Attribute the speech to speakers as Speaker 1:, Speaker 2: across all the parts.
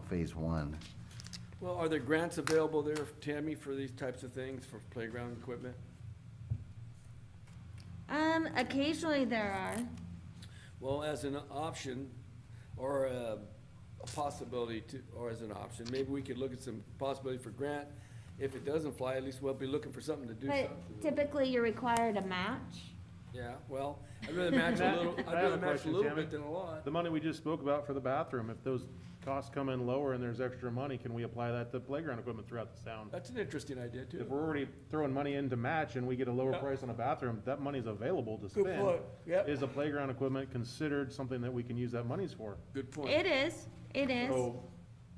Speaker 1: phase one.
Speaker 2: Well, are there grants available there, Tammy, for these types of things, for playground equipment?
Speaker 3: Um, occasionally there are.
Speaker 2: Well, as an option, or a a possibility to, or as an option, maybe we could look at some possibility for grant. If it doesn't fly, at least we'll be looking for something to do
Speaker 3: But
Speaker 2: something.
Speaker 3: typically you're required to match.
Speaker 2: Yeah, well, I'd rather match a little,
Speaker 4: I
Speaker 2: I'd
Speaker 4: have a
Speaker 2: rather match a
Speaker 4: question,
Speaker 2: little
Speaker 4: Tammy.
Speaker 2: bit than a lot.
Speaker 4: The money we just spoke about for the bathroom, if those costs come in lower and there's extra money, can we apply that to playground equipment throughout the town?
Speaker 2: That's an interesting idea,
Speaker 4: If
Speaker 2: too.
Speaker 4: we're already throwing money in to match and we get a lower
Speaker 2: Yeah.
Speaker 4: price on a bathroom, that money's available to
Speaker 2: Good
Speaker 4: spend.
Speaker 2: point, yep.
Speaker 4: Is the playground equipment considered something that we can use that monies for?
Speaker 2: Good point.
Speaker 3: It is, it is.
Speaker 4: So,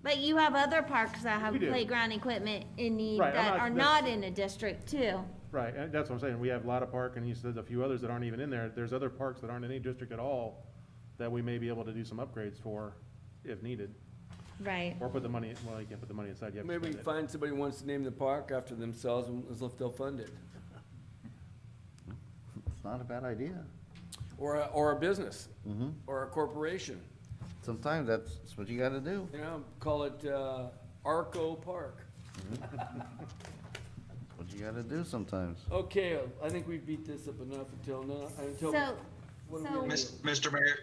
Speaker 3: But you have other parks that have
Speaker 4: Oh. We do.
Speaker 3: playground equipment in need
Speaker 4: Right, I'm
Speaker 3: that
Speaker 4: not-
Speaker 3: are
Speaker 4: that's-
Speaker 3: not in a district too.
Speaker 4: right, and that's what I'm saying, we have Lotta Park and you said a few others that aren't even in there, there's other parks that aren't in any district at all that we may be able to do some upgrades for if needed,
Speaker 3: Right.
Speaker 4: or put the money, well, you can't put the money aside, you have to
Speaker 2: Maybe we
Speaker 4: spend
Speaker 2: can
Speaker 4: it.
Speaker 2: find somebody who wants to name the park after themselves, and as if they'll fund it.
Speaker 1: It's not a bad idea.
Speaker 2: Or, a- or a business. Or a corporation,
Speaker 1: Sometimes that's, that's what you gotta do.
Speaker 2: you know, call it, uh, Arco Park.
Speaker 1: That's What you gotta do sometimes.
Speaker 2: Okay, I think we beat this up enough until now, until.
Speaker 3: So,
Speaker 2: what do we
Speaker 3: so-
Speaker 2: do?
Speaker 5: Mis- Mr. Mayor,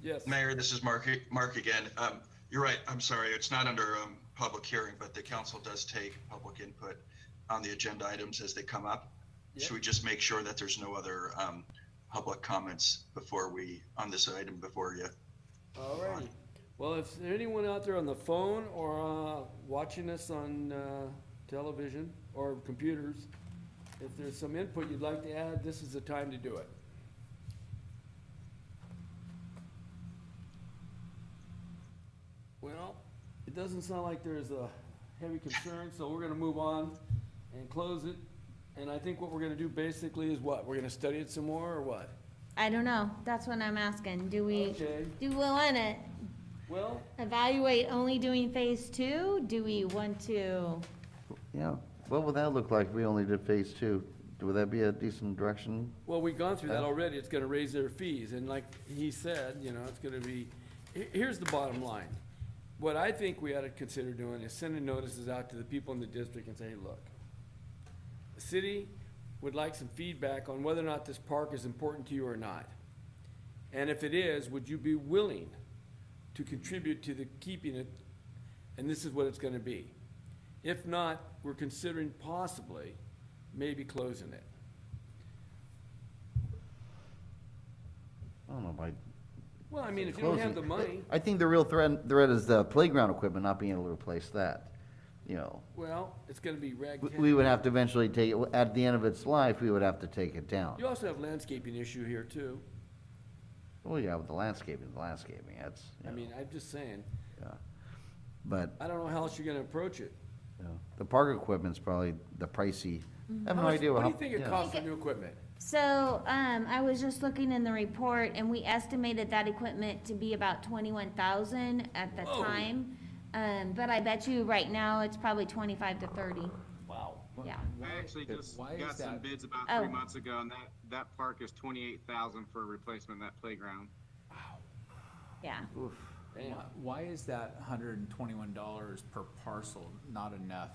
Speaker 2: Yes,
Speaker 5: Mayor, this is Mark, Mark again. Um, You're right, I'm sorry, it's not under um, public hearing, but the council does take public input on the agenda items as they come up. Should we just make sure that there's no other um, public comments before we, on this item before you?
Speaker 2: all righty. Well, if there anyone out there on the phone or, uh, watching us on, uh, television or computers, if there's some input you'd like to add, this is the time to do it. Well, it doesn't sound like there's a heavy concern, so we're gonna move on and close it. And I think what we're gonna do basically is what? We're gonna study it some more or what?
Speaker 3: I don't know. That's what I'm asking. Do we,
Speaker 2: Okay.
Speaker 3: do we wanna
Speaker 2: Well,
Speaker 3: evaluate only doing phase two? Do we want to?
Speaker 1: Yeah. What would that look like if we only did phase two? Would that be a decent direction?
Speaker 2: Well, we've gone through that
Speaker 1: Huh?
Speaker 2: already, it's gonna raise their fees, and like he said, you know, it's gonna be, he- here's the bottom line. What I think we ought to consider doing is sending notices out to the people in the district and say, hey, look, the city would like some feedback on whether or not this park is important to you or not. And if it is, would you be willing to contribute to the keeping it? And this is what it's gonna be. If not, we're considering possibly maybe closing it.
Speaker 1: I don't know, by
Speaker 2: Well, I mean, if you don't
Speaker 1: closing.
Speaker 2: have the money,
Speaker 1: I think the real threat, threat is the playground equipment not being able to replace that, you know.
Speaker 2: well, it's gonna be
Speaker 1: We-
Speaker 2: ragtag.
Speaker 1: We would have to eventually take, it at the end of its life, we would have to take it down.
Speaker 2: You also have landscaping issue here too.
Speaker 1: Well, yeah, with the landscaping, the landscaping, that's,
Speaker 2: I
Speaker 1: you know,
Speaker 2: mean, I'm just saying,
Speaker 1: yeah. But
Speaker 2: I don't know how else you're gonna approach it.
Speaker 1: you know, the park equipment's probably the pricey, I have
Speaker 2: How
Speaker 1: no
Speaker 2: much-
Speaker 1: idea.
Speaker 2: What do
Speaker 1: how-
Speaker 2: you think it
Speaker 1: yeah.
Speaker 2: costs for new equipment?
Speaker 3: So, um, I was just looking in the report and we estimated that equipment to be about twenty-one thousand at the
Speaker 2: Whoa.
Speaker 3: time. Um, but I bet you right now it's probably twenty-five to thirty,
Speaker 2: Wow.
Speaker 3: yeah.
Speaker 6: I actually just
Speaker 2: Why is
Speaker 6: got some
Speaker 2: that?
Speaker 6: bids about three
Speaker 3: Oh.
Speaker 6: months ago, and that, that park is twenty-eight thousand for a replacement of that playground.
Speaker 3: Yeah,
Speaker 2: Damn.
Speaker 7: Why- Why is that hundred and twenty-one dollars per parcel not enough?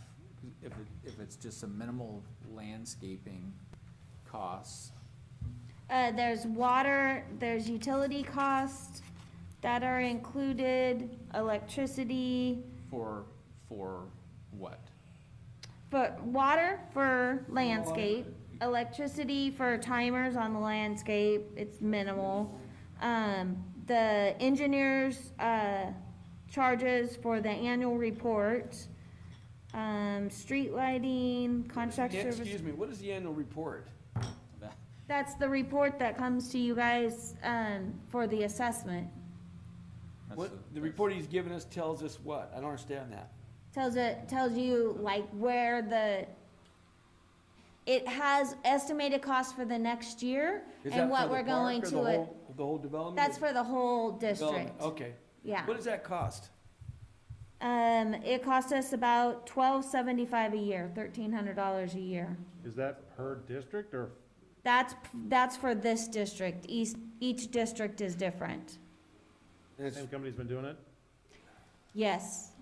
Speaker 7: If it, if it's just a minimal landscaping costs,
Speaker 3: uh, there's water, there's utility costs that are included, electricity,
Speaker 7: for, for what?
Speaker 3: but water for landscape, electricity for timers on the landscape, it's minimal. Um, the engineers, uh, charges for the annual report, um, street lighting, contract
Speaker 2: Yeah,
Speaker 3: service.
Speaker 2: Excuse me, what is the annual report?
Speaker 3: That's the report that comes to you guys, um, for the assessment.
Speaker 7: That's
Speaker 2: What,
Speaker 7: the-
Speaker 2: the
Speaker 7: that's-
Speaker 2: report he's given us tells us what? I don't understand that.
Speaker 3: Tells it, tells you like where the, it has estimated cost for the next year
Speaker 2: Is that
Speaker 3: and
Speaker 2: for
Speaker 3: what
Speaker 2: the
Speaker 3: we're
Speaker 2: park
Speaker 3: going
Speaker 2: or the
Speaker 3: to it.
Speaker 2: whole- The whole development?
Speaker 3: That's
Speaker 2: or
Speaker 3: for the whole
Speaker 2: development?
Speaker 3: district.
Speaker 2: Okay.
Speaker 3: Yeah.
Speaker 2: What does that cost?
Speaker 3: Um, it costs us about twelve seventy-five a year, thirteen hundred dollars a year.
Speaker 4: Is that per district or
Speaker 3: That's, that's for this district. Each, each district is different.
Speaker 2: And it's-
Speaker 4: same company's been doing it?
Speaker 3: Yes.